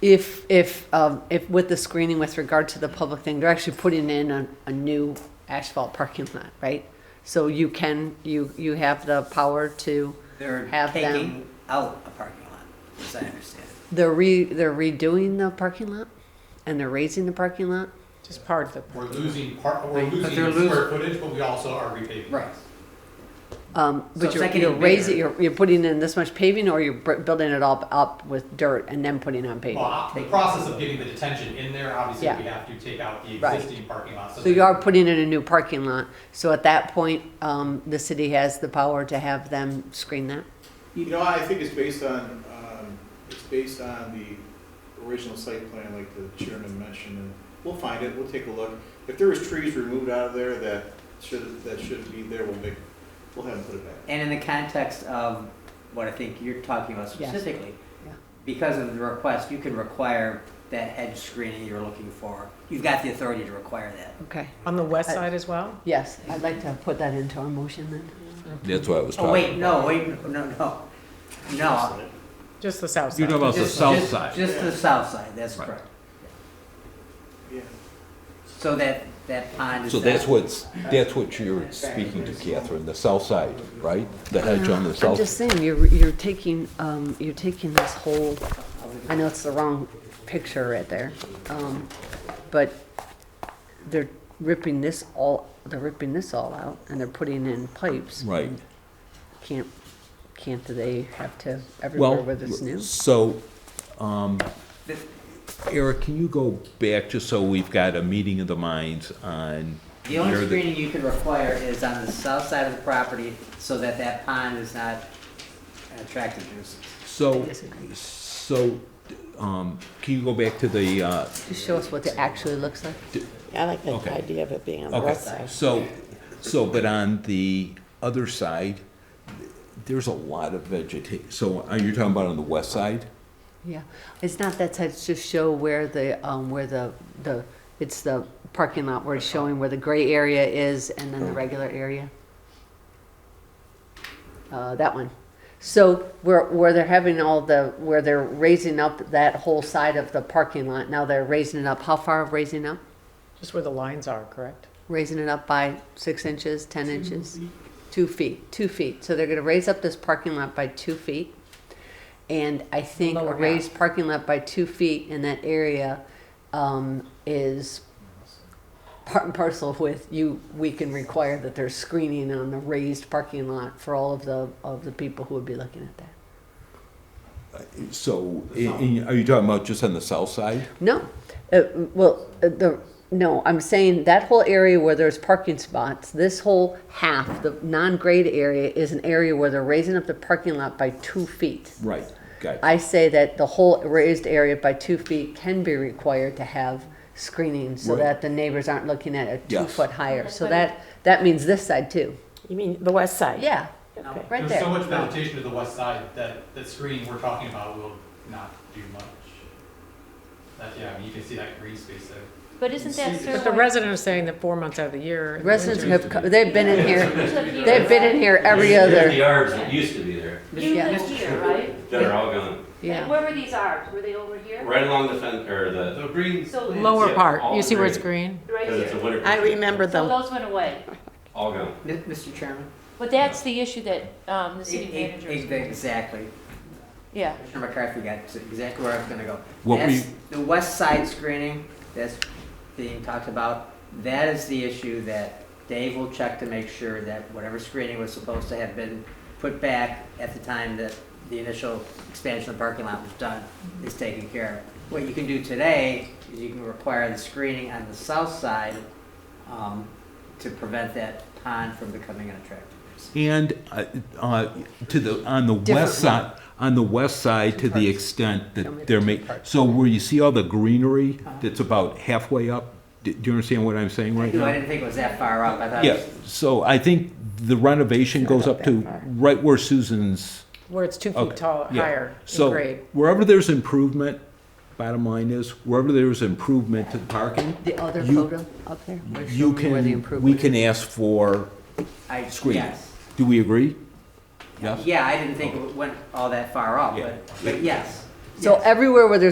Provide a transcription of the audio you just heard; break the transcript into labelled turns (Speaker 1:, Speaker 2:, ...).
Speaker 1: if, if, um, if with the screening with regard to the public thing, they're actually putting in a, a new asphalt parking lot, right? So you can, you, you have the power to
Speaker 2: They're
Speaker 1: have them.
Speaker 2: taking out a parking lot, as I understand it.
Speaker 1: They're re, they're redoing the parking lot and they're raising the parking lot?
Speaker 3: Just part of the,
Speaker 4: We're losing part, we're
Speaker 2: But
Speaker 4: losing
Speaker 2: they're
Speaker 4: the square footage, but we also are repaving.
Speaker 1: Um,
Speaker 2: So
Speaker 1: but
Speaker 2: it's
Speaker 1: you're,
Speaker 2: not getting
Speaker 1: you're raising,
Speaker 2: bigger.
Speaker 1: you're, you're putting in this much paving or you're br- building it all up with dirt and then putting on
Speaker 4: Well,
Speaker 1: paving?
Speaker 4: I- the process of getting the detention in there, obviously,
Speaker 1: Yeah.
Speaker 4: we have to take out the
Speaker 1: Right.
Speaker 4: existing parking lot.
Speaker 1: So you are putting in a new parking lot, so at that point, um, the city has the power to have them screen that?
Speaker 5: You know, I think it's based on, um, it's based on the original site plan, like the chairman mentioned, and we'll find it, we'll take a look. If there was trees removed out of there that should, that shouldn't be there, we'll make, we'll have them put it back.
Speaker 2: And in the context of what I think you're talking about
Speaker 1: Yeah.
Speaker 2: specifically,
Speaker 1: Yeah.
Speaker 2: because of the request, you can require that hedge screening you're looking for. You've got the authority to require that.
Speaker 1: Okay,
Speaker 3: on the
Speaker 6: Uh,
Speaker 3: west side as well?
Speaker 1: yes, I'd like to put that into our motion then.
Speaker 7: That's what I was
Speaker 2: Oh, wait,
Speaker 7: talking.
Speaker 2: no, wait, no, no, no.
Speaker 3: Just the south
Speaker 8: You're
Speaker 3: side?
Speaker 8: talking about the
Speaker 2: Just-
Speaker 8: south
Speaker 2: just-
Speaker 8: side.
Speaker 2: Just the south side, that's
Speaker 8: Right.
Speaker 2: correct.
Speaker 5: Yeah.
Speaker 2: So that, that pond is.
Speaker 7: So that's
Speaker 2: not-
Speaker 7: what's, that's what you're speaking to Catherine, the south side, right? The hedge on
Speaker 1: Uh-huh.
Speaker 7: the
Speaker 1: I'm
Speaker 7: south.
Speaker 1: just saying, you're, you're taking, um, you're taking this whole, I know it's the wrong picture right there, um, but they're ripping this all, they're ripping this all out and they're putting in pipes.
Speaker 7: Right.
Speaker 1: Can't, can't they have to everywhere
Speaker 7: Well,
Speaker 1: where it's new?
Speaker 7: so, um, Eric, can you go back just so we've got a meeting of the minds on
Speaker 2: The only
Speaker 7: where the-
Speaker 2: screening you can require is on the south side of the property so that that pond is not an attractive nuisance.
Speaker 7: So,
Speaker 1: disagree.
Speaker 7: so, um, can you go back to the, uh,
Speaker 1: Just show us what it actually looks like.
Speaker 6: I like the
Speaker 7: Okay.
Speaker 6: idea of it being on the
Speaker 7: okay,
Speaker 6: west side.
Speaker 7: so, so, but on the other side, there's a lot of vegeta, so are you talking about on the west side?
Speaker 1: Yeah, it's not that side, it's just show where the, um, where the, the, it's the parking lot where it's showing where the gray area is and then the regular area. Uh, that one. So where, where they're having all the, where they're raising up that whole side of the parking lot, now they're raising it up, how far of raising up?
Speaker 3: Just where the lines are, correct?
Speaker 1: raising it up by six inches, ten inches, two feet, two feet. So they're gonna raise up this parking lot by two feet. And I think a
Speaker 3: Lower half.
Speaker 1: raised parking lot by two feet in that area, um, is part and parcel with you, we can require that there's screening on the raised parking lot for all of the, of the people who would be looking at that.
Speaker 7: So, i- i- are you talking about just on the south side?
Speaker 1: No, uh, well, uh, the, no, I'm saying that whole area where there's parking spots, this whole half, the non-grade area is an area where they're raising up the parking lot by two feet.
Speaker 7: Right, got it.
Speaker 1: I say that the whole raised area by two feet can be required to have screening so
Speaker 7: Right.
Speaker 1: that the neighbors aren't looking at it two
Speaker 7: Yes.
Speaker 1: foot higher. So that, that means this side too.
Speaker 6: You mean the west side?
Speaker 1: Yeah,
Speaker 6: Okay.
Speaker 1: right
Speaker 4: There's so
Speaker 1: there.
Speaker 4: much vegetation to the west side that, that screening we're talking about will not do much. That, yeah, I mean, you can see that green space there.
Speaker 9: But isn't that
Speaker 3: But the
Speaker 9: Sirloin?
Speaker 3: resident is saying that four months out of the year. in the
Speaker 1: Residents
Speaker 3: winter-
Speaker 1: have, co- they've been in here, they've
Speaker 9: They've
Speaker 1: been in here every other,
Speaker 10: The arbs that used to be there,
Speaker 9: You
Speaker 1: Yeah.
Speaker 9: live here, right?
Speaker 10: that are all gone,
Speaker 9: And
Speaker 1: yeah.
Speaker 9: where were these arbs? Were they over here?
Speaker 10: right along the fence, or the,
Speaker 8: The green
Speaker 9: So,
Speaker 3: Lower
Speaker 10: Yeah,
Speaker 3: part,
Speaker 10: all
Speaker 3: you see where it's
Speaker 10: green.
Speaker 3: green?
Speaker 9: right
Speaker 10: because it's a
Speaker 9: here.
Speaker 10: winter.
Speaker 6: I remember
Speaker 9: So
Speaker 6: them.
Speaker 9: those went away.
Speaker 10: All gone.
Speaker 2: M- Mr. Chairman?
Speaker 9: But that's the issue that um, the city
Speaker 2: E- e-
Speaker 9: manager
Speaker 2: e-
Speaker 9: is.
Speaker 2: Exactly.
Speaker 9: Yeah.
Speaker 2: Commissioner McCarthy got exactly where I was gonna go.
Speaker 7: What
Speaker 2: That's
Speaker 7: we-
Speaker 2: The west side screening that's being talked about, that is the issue that Dave will check to make sure that whatever screening was supposed to have been put back at the time that the initial expansion of the parking lot was done is taken care of. What you can do today is you can require the screening on the south side um, to prevent that pond from becoming unattractive.
Speaker 7: And uh, uh, to the, on the
Speaker 1: Different
Speaker 7: west side, on the west side, to the extent
Speaker 1: Show me the
Speaker 7: that there may,
Speaker 1: two parts. Uh-huh.
Speaker 7: so where you see all the greenery that's about halfway up, d- do you understand what I'm saying right
Speaker 2: No, I
Speaker 7: now?
Speaker 2: didn't think it was that far up. I thought it
Speaker 7: Yeah,
Speaker 2: was
Speaker 7: so I think the renovation goes up to right where Susan's,
Speaker 3: Where it's two
Speaker 7: okay.
Speaker 3: feet tall,
Speaker 7: yeah.
Speaker 3: higher in
Speaker 7: So
Speaker 3: grade.
Speaker 7: wherever there's improvement, bottom line is, wherever there's improvement to the parking,
Speaker 1: The other
Speaker 7: You-
Speaker 1: photo up there. where's
Speaker 7: you
Speaker 1: showing where the
Speaker 7: can, we
Speaker 1: improvement
Speaker 7: can ask for
Speaker 2: I,
Speaker 7: screening.
Speaker 2: yes.
Speaker 7: Do we agree? Yes?
Speaker 2: Yeah, I didn't think it went all that far off,
Speaker 7: Yeah.
Speaker 2: but, but yes.
Speaker 1: So everywhere where there's